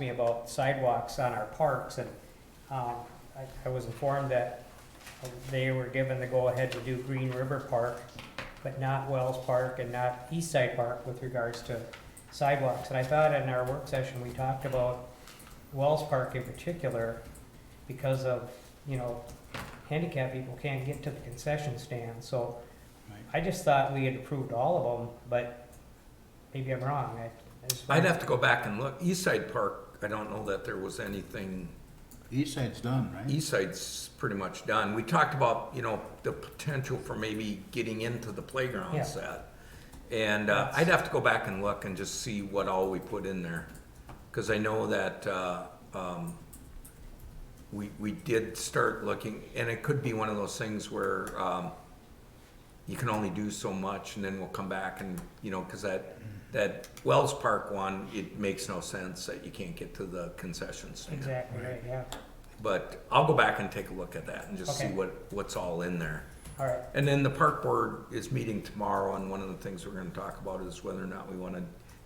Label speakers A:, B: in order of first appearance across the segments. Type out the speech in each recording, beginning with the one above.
A: me about sidewalks on our parks, and um, I I was informed that they were given the go-ahead to do Green River Park, but not Wells Park and not East Side Park with regards to sidewalks. And I thought in our work session, we talked about Wells Park in particular, because of, you know, handicap people can't get to the concession stand, so
B: Right.
A: I just thought we had approved all of them, but maybe I'm wrong. I- I just-
C: I'd have to go back and look. East Side Park, I don't know that there was anything,
B: East side's done, right?
C: East Side's pretty much done. We talked about, you know, the potential for maybe getting into the
A: Yeah.
C: playground set. And uh, I'd have to go back and look and just see what all we put in there. Because I know that uh, um, we, we did start looking, and it could be one of those things where um, you can only do so much, and then we'll come back and, you know, because
A: Mm.
C: that, that Wells Park one, it makes no sense that you can't get to the concession stand.
A: Exactly, right, yeah.
C: But I'll go back and take a look at that and just see
A: Okay.
C: what, what's all in there.
A: All right,
C: And then the park board is meeting tomorrow, and one of the things we're gonna talk about is whether or not we wanna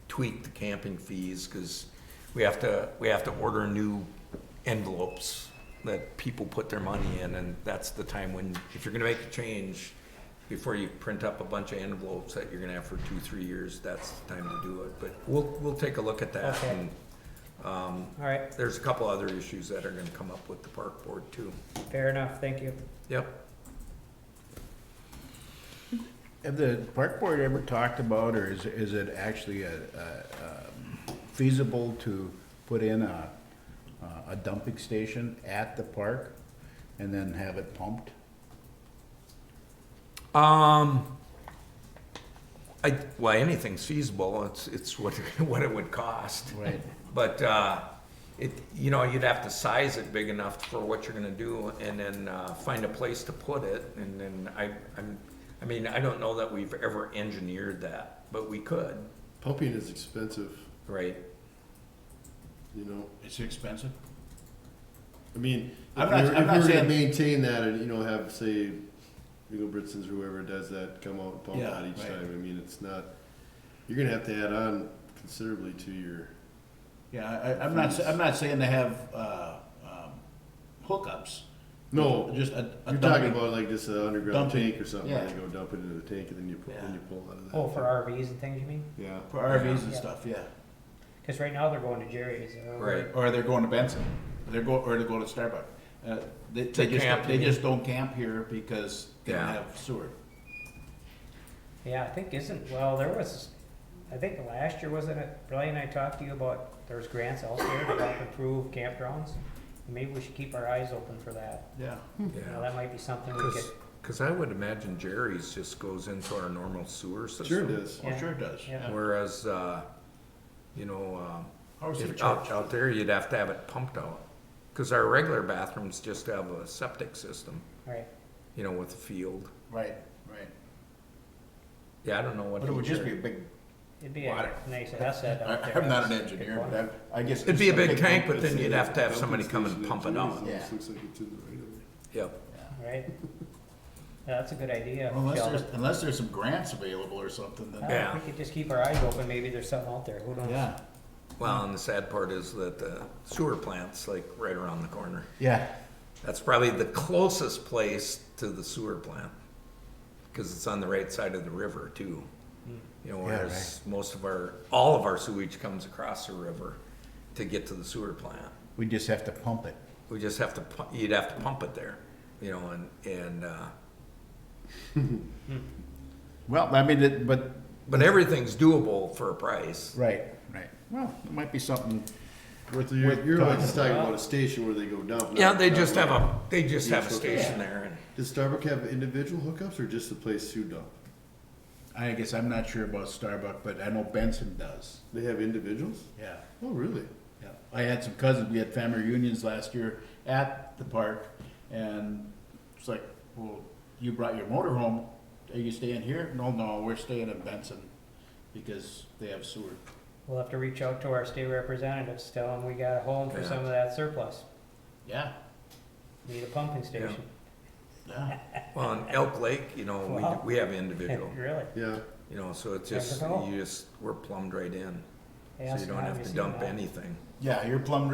C: tweak the camping fees, cause we have to, we have to order new envelopes that people put their money in, and that's the time when, if you're gonna make a change, before you print up a bunch of envelopes that you're gonna have for two, three years, that's the time to do it, but we'll, we'll take a look at that.
A: Okay.
C: and, Um,
A: all right,
C: there's a couple other issues that are gonna come up with the park board too.
A: fair enough, thank you.
C: Yep.
B: Have the park board ever talked about, or is, is it actually a, a, um, feasible to put in a, uh, a dumping station at the park and then have it pumped?
C: Um, I, well, anything's feasible, it's, it's what, what it would cost.
B: Right.
C: But, uh, it, you know, you'd have to size it big enough for what you're gonna do and then, uh, find a place to put it. And then I, I'm, I mean, I don't know that we've ever engineered that, but we could,
D: Pumping is expensive,
C: right?
D: you know.
B: It's expensive?
D: I mean,
B: I'm
D: if
B: not-
D: we were,
B: I'm
D: if
B: not
D: we were
B: saying-
D: to maintain that and, you know, have, say, Eagle Britson's or whoever does that come out and pump
B: Yeah,
D: out each
B: right.
D: time, I mean, it's not, you're gonna have to add on considerably to your,
E: Yeah, I, I'm not, I'm not saying to have, uh, um, hookups.
D: no,
E: Just a, a
D: you're talking
E: dumping.
D: about like just an underground
E: Dumping,
D: tank or something,
E: yeah.
D: and you go dump it into the tank and then you, pu- then
E: Yeah.
D: you pull out of that.
A: Oh, for RVs and things, you mean?
D: Yeah,
E: For RVs and
A: Yeah.
E: stuff, yeah.
A: Because right now they're going to Jerry's. uh,
C: Right.
E: Or they're going to Benson, they're go, or they're going to Starbucks. Uh, they, they
C: camp,
E: just, they
C: you
E: just don't camp here because they don't
C: Yeah.
E: have sewer.
A: Yeah, I think isn't, well, there was, I think last year, wasn't it, Brian and I talked to you about, there's grants elsewhere to help improve campgrounds. Maybe we should keep our eyes open for that.
E: Yeah.
A: You know, Hmm. that might be something we could,
C: Cause, 'cause I would imagine Jerry's just goes into our normal sewer system.
D: sure it is.
E: Oh, sure it does.
A: Yeah.
E: Yeah.
C: Whereas, uh, you know, um,
E: How is it
C: If out,
E: charged?
C: out there, you'd have to have it pumped out, because our regular bathrooms just have a septic system,
A: right,
C: you know, with a field.
E: Right, right.
C: Yeah, I don't know what.
E: But it would just be a
C: either.
E: big,
A: it'd be a
E: Water.
A: nice asset out
E: I-
A: there.
E: I'm not an engineer, but I, I guess.
C: It'd be a
E: just
C: big tank, but
D: It's
C: then
D: a
C: you'd have to have
D: dumping
C: somebody come and
D: station
C: pump
D: at
C: it
D: Julie's.
C: out.
E: Yeah.
D: Looks like it's in the right of way.
C: Yep,
A: Right? Yeah, that's a good idea.
E: Unless
A: Sheldon.
E: there's, unless there's some grants available or something,
A: I don't
E: then,
A: know,
C: Yeah.
A: We could just keep our eyes open, maybe there's something out there, who knows?
E: yeah.
C: well, and the sad part is that the sewer plant's like right around the corner.
E: Yeah.
C: That's probably the closest place to the sewer plant, because it's on the right side of the river too. You know, whereas most of our, all of our sewage comes across the river to get to the sewer plant.
B: We just have to pump it.
C: We just have to, pu- you'd have to pump it there, you know, and, and, uh,
B: Well, I mean, it, but,
C: but everything's doable for a price.
B: right, right. Well, it might be something,
D: Worth, you're, you're
B: talking
D: just talking about a station where they go dump.
C: Yeah,
D: not-
C: they
D: not
C: just
D: where-
C: have a, they just have a
D: Yeah.
C: station there and,
D: Does Starbucks have individual hookups or just the place to dump?
E: I guess I'm not sure about Starbucks, but I know Benson does.
D: They have individuals?
E: Yeah.
D: Oh, really?
E: Yeah, I had some cousins, we had family reunions last year at the park, and it's like, well, you brought your motor home, are you staying here? No, no, we're staying in Benson, because they have sewer.
A: We'll have to reach out to our state representatives, tell them we got a home for
C: Yeah.
A: some of that surplus,
E: Yeah,
A: need a pumping station.
E: yeah,
C: well, in Elk Lake, you know,
A: Wow.
C: we, we have individual,
A: Really?
D: Yeah.
C: you know, so it's just,
A: Never know.
C: you just, we're plumbed right in.
A: Yeah,
C: So you don't
A: now
C: have
A: you
C: to
A: see
C: dump
A: that.
C: anything.
E: yeah, your plum